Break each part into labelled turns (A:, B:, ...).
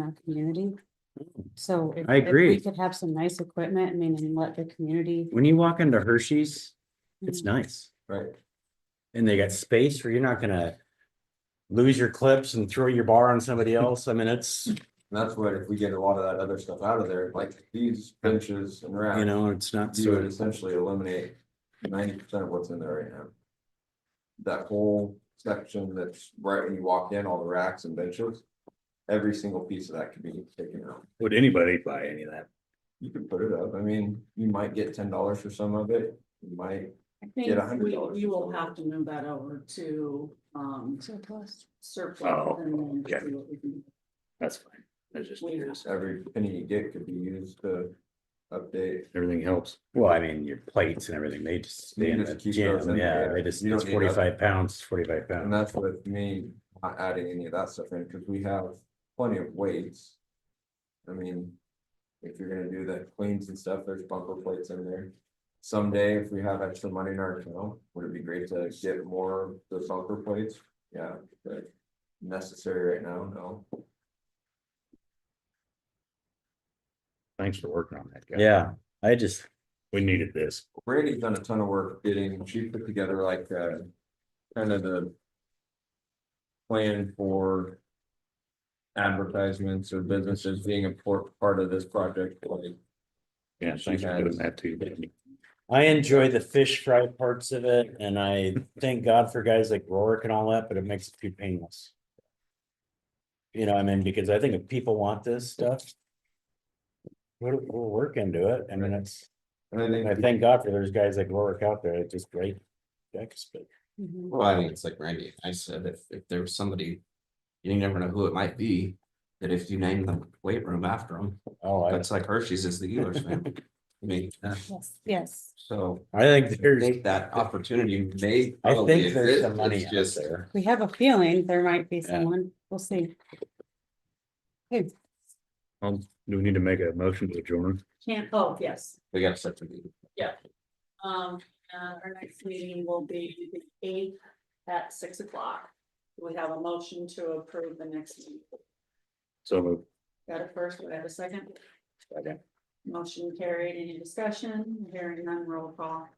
A: in our community. So. if-
B: I
A: if we
B: agree.
A: Could have some nice equipment, I mean, and let the community.
B: When you walk into Hershey's, it's
A: Mhm.
B: nice.
C: Right.
B: And they got space where you're not gonna lose your clips and throw your bar on somebody else. I mean, it's,
C: And that's what, if we get a lot of that other stuff out of there, like these benches and
B: you
C: racks,
B: know, it's not
C: you would
B: so,
C: essentially eliminate ninety percent of what's in there right now. That whole section that's right when you walk in, all the racks and benches, every single piece of that could be taken out.
D: Would anybody buy any of that?
C: You could put it up, I mean, you might get ten dollars for some of it, you might,
E: I
C: Get
E: think
C: a hundred
E: we,
C: dollars
E: we
C: or
E: will
C: something.
E: have to move that over to, um,
A: Surplus.
E: surplus.
D: Oh,
E: and then
D: okay.
E: see what we can-
D: That's fine. I was just
E: Wait.
D: curious.
C: every penny you get could be used to update.
D: Everything helps.
B: well, I mean, your plates and everything, they just stay
C: You
B: in
C: just
B: the
C: keep those
B: gym.
C: in
B: Yeah,
C: there.
B: they just,
C: You don't
B: it's
C: need nothing.
B: forty-five pounds, forty-five
C: And
B: pounds.
C: that's with me not adding any of that stuff in, because we have plenty of weights. I mean, if you're gonna do the cleans and stuff, there's bumper plates in there. Someday, if we have extra money in our account, would it be great to get more of the bumper plates? Yeah, but necessary right now, no.
D: Thanks for working on that. guys.
B: Yeah, I just,
D: We needed this.
C: Brady's done a ton of work getting, she put together like, uh, kind of the. Plan for. Advertisements or businesses being a por- part of this project, like.
D: Yeah,
C: She
D: thanks for doing
C: has-
D: that too.
B: I enjoy the fish fry parts of it and I thank God for guys like Rorick and all that, but it makes it too painless. You know, I mean, because I think if people want this stuff. We'll, we'll work into it. I mean, it's.
C: And I
B: And I
C: think,
B: thank God for there's guys like Rorick out there, it's just great. decks, but-
A: Mhm.
F: Well, I think it's like Randy, I said, if, if there was somebody, you never know who it might be, that if you name the weight room after them,
B: oh, I,
F: that's like Hershey's is the Ehlers family. I mean, uh,
A: Yes, yes,
F: so
B: I think
F: I
B: there's,
F: think that opportunity may.
B: I
F: probably
B: think there's
F: exist,
B: some money
F: it's
B: out
F: just-
B: there.
A: we have a feeling there might be
B: Yeah.
A: someone, we'll see. Hey,
D: Um, do we need to make a motion to adjourn?
E: Can't, oh, yes,
F: We got such a.
E: um, uh, our next meeting will be the eighth at six o'clock. We have a motion to approve the next meeting.
D: So moved.
E: Got a first, we have a second.
D: Second.
E: Motion carried, any discussion, hearing none, roll call.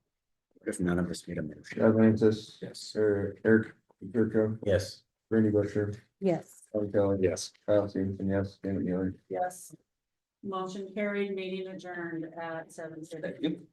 B: If none of us made a motion.
C: Doug Lantis,
F: Yes.
C: Eric, Eric, Jerko,
B: Yes.
C: Randy Busher,
A: yes.
C: Tom Kelly.
D: Yes.
C: Kyle Stevenson, yes, Dan Mueller.
E: Yes. Motion carried, meeting adjourned at seven thirty.
F: Thank you.